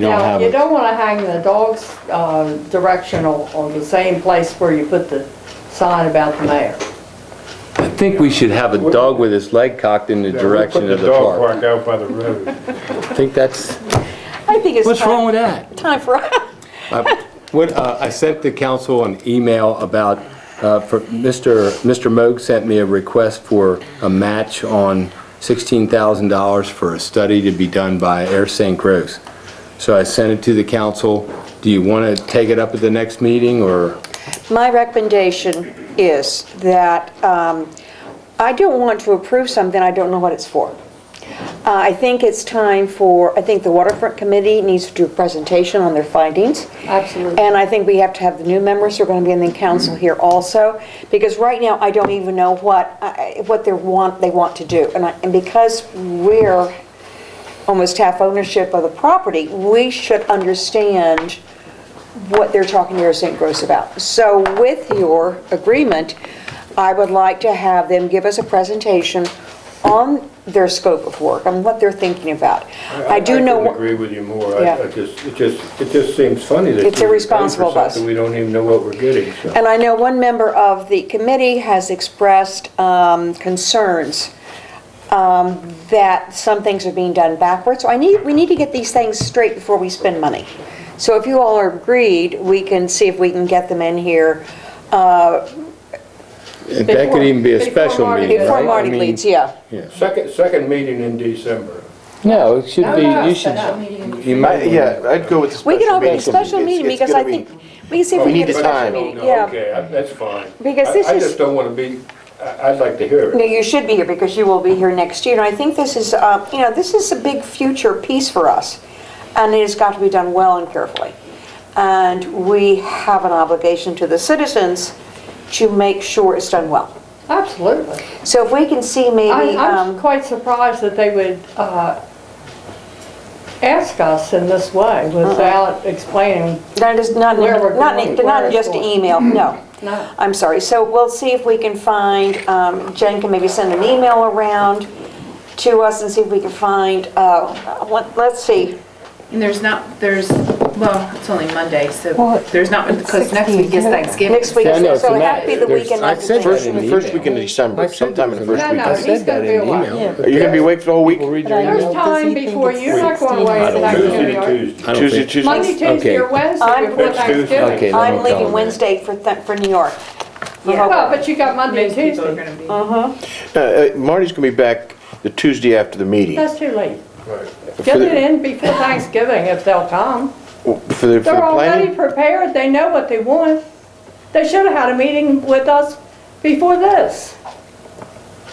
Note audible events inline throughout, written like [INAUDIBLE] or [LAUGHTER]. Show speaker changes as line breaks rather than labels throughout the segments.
You don't
Now,
have
you
it.
don't want to hang the dog's uh, directional on the same place where you put the sign about the mayor.
I think we should have a dog with his leg cocked in the
Yeah, we
direction of the park.
Put the dog park out by the road.
I think that's,
I think it's
what's
time,
wrong with that?
time for
I- What, uh, I sent the council an email about, uh, for, Mr. Mr. Moog sent me a request for a match on $16,000 for a study to be done by Air St. Croix. So I sent it to the council. Do you want to take it up at the next meeting, or?
My recommendation is that um, I don't want to approve something I don't know what it's for. Uh, I think it's time for, I think the waterfront committee needs to do a presentation on their findings.
Absolutely.
And I think we have to have the new members who are going to be in the council here also, because right now, I don't even know what, I- I- what they want, they want to do. And I- and because we're almost half ownership of the property, we should understand what they're talking to Air St. Gross about. So with your agreement, I would like to have them give us a presentation on their scope of work and what they're thinking about. I do know.
couldn't
what-
agree with you more. I-
Yeah.
I just, it just, it just seems funny that.
It's
we pay for
irresponsible of us.
something We don't even know what we're getting, so.
And I know one member of the committee has expressed um, concerns um, that some things are being done backwards. So I need, we need to get these things straight before we spend money. So if you all are agreed, we can see if we can get them in here
That could even be a
Before-
special
before
meeting,
Marty-
right?
before
I
Marty
mean-
leaves, yeah.
Second, second meeting in December.
No, it should
No,
be,
no,
you
it's
should.
not meeting.
you
I-
might-
Yeah, I'd go with the special
We
meeting.
can open a special
It's-
meeting
it's
because I
gonna be-
think, we can see if
Well,
we
we
can get
need
a
to
special
time.
meeting.
No,
Yeah.
Okay, I- that's fine.
Because
I-
this
I
is-
just don't want to be, I- I'd like to hear
No,
it.
you should be here because you will be here next year. And I think this is, uh, you know, this is a big future piece for us. And it has got to be done well and carefully. And we have an obligation to the citizens to make sure it's done well.
Absolutely.
So if we can see
I-
maybe,
I'm
um,
quite surprised that they would uh, ask us in this way
Uh-huh.
without explaining.
not just, not,
Where we're
not,
going, where
not
it's
just an
going.
email, no.
No.
I'm sorry. So we'll see if we can find, um, Jen can maybe send an email around to us and see if we can find, uh, what- let's see.
And there's not, there's, well, it's only Monday,
Well,
so there's not,
it's
because next week is
16th.
Thanksgiving.
Next week,
Yeah, I know,
so
it's a
so it had
matter-
to be the
there's-
weekend
I
after
said that
Thanksgiving.
First, the first weekend of December, sometime in the first
No,
weekend.
no, he's going to be away.
Are you gonna be awake for the whole week?
But I
There's
know, does
time
he think
before
it's
you're not
16?
going away. to
Tuesday to
Thanksgiving.
Tuesday.
I don't
Tuesday,
think-
Tuesday.
Monday, Tuesday, or
Okay.
Wednesday
I'm-
before
Next Tuesday.
Thanksgiving.
Okay. then
I'm
we'll tell
leaving
him
Wednesday for, th- for New York.
Well, but you got Monday and
Most people are
Tuesday.
gonna
No,
be.
uh, Marty's gonna be back the Tuesday after the meeting.
That's too late.
Right.
Get it in before Thanksgiving if they'll come.
For the, for the
They're already
planning?
prepared, they know what they want. They should have had a meeting with us before this.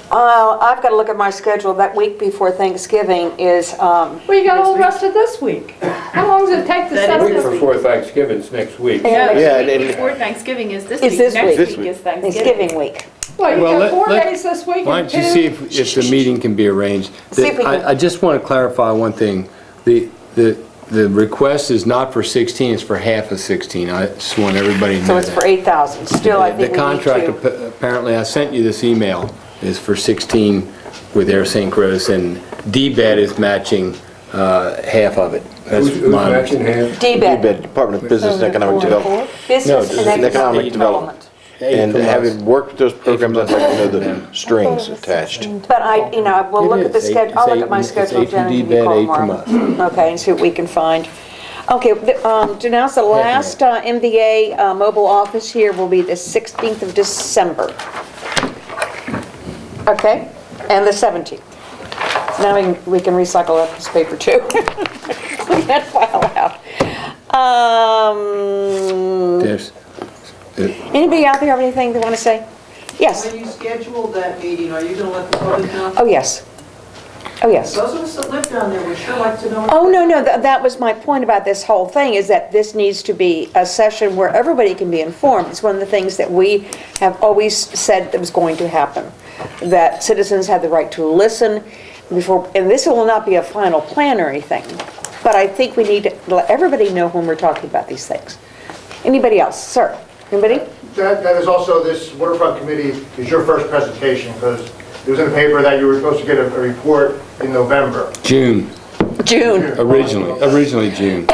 Uh, I've got to look at my schedule. That week before Thanksgiving is, um,
Well, you got all the rest of this week. How long does it take to
That
set
is-
Week
this?
before Thanksgiving's next week.
No,
Yeah,
the
and-
week before Thanksgiving is this week.
It's this week.
This
Next week
week.
is Thanksgiving.
Thanksgiving week.
Well, you
Well,
got
let-
four
let-
days this week
Why
and
don't you see
two.
if, if the meeting can be arranged?
See if we
I-
can-
I just want to clarify one thing. The, the, the request is not for 16, it's for half of 16. I just want everybody to know that.
So it's for 8,000. Still, I
The-
think we need
The contract,
to.
ap- apparently, I sent you this email, is for 16 with Air St. Croix, and DBED is matching uh, half of it. That's
Who's who's
my
matching half?
DBED,
DBED, Department of Business and Economic Development. No,
Business
this is
and Economic
economic
Development.
development.
Eight
And
from us.
having worked with those programs, I'd like to know
Yeah.
the strings attached.
But I, you know, I will
It
look
is.
at the
Eight-
schedule, I'll look
it's
at my
eight- it's
schedule,
eight from
Jen, and give you a
DBED,
call
eight from
tomorrow. Okay, and see what we can find. Okay, the, um, to announce the last uh, MVA uh, mobile office here will be the 16th of December. Okay, and the 17th. Now we can, we can recycle up this paper too. [LAUGHS] Clean that file out. Um,
There's- uh, it-
anybody out there have anything they want to say? Yes,
When you schedule that meeting, are you going to let the public know?
oh, yes. Oh, yes.
Those of us that live down there would sure like to know.
Oh, no, no, tha- that was my point about this whole thing, is that this needs to be a session where everybody can be informed. It's one of the things that we have always said that was going to happen, that citizens had the right to listen before, and this will not be a final plan or anything, but I think we need to let everybody know when we're talking about these things. Anybody else? Sir? Anybody?
That, that is also, this waterfront committee is your first presentation, because it was in the paper that you were supposed to get a, a report in November.
June,
June.
Originally, originally June.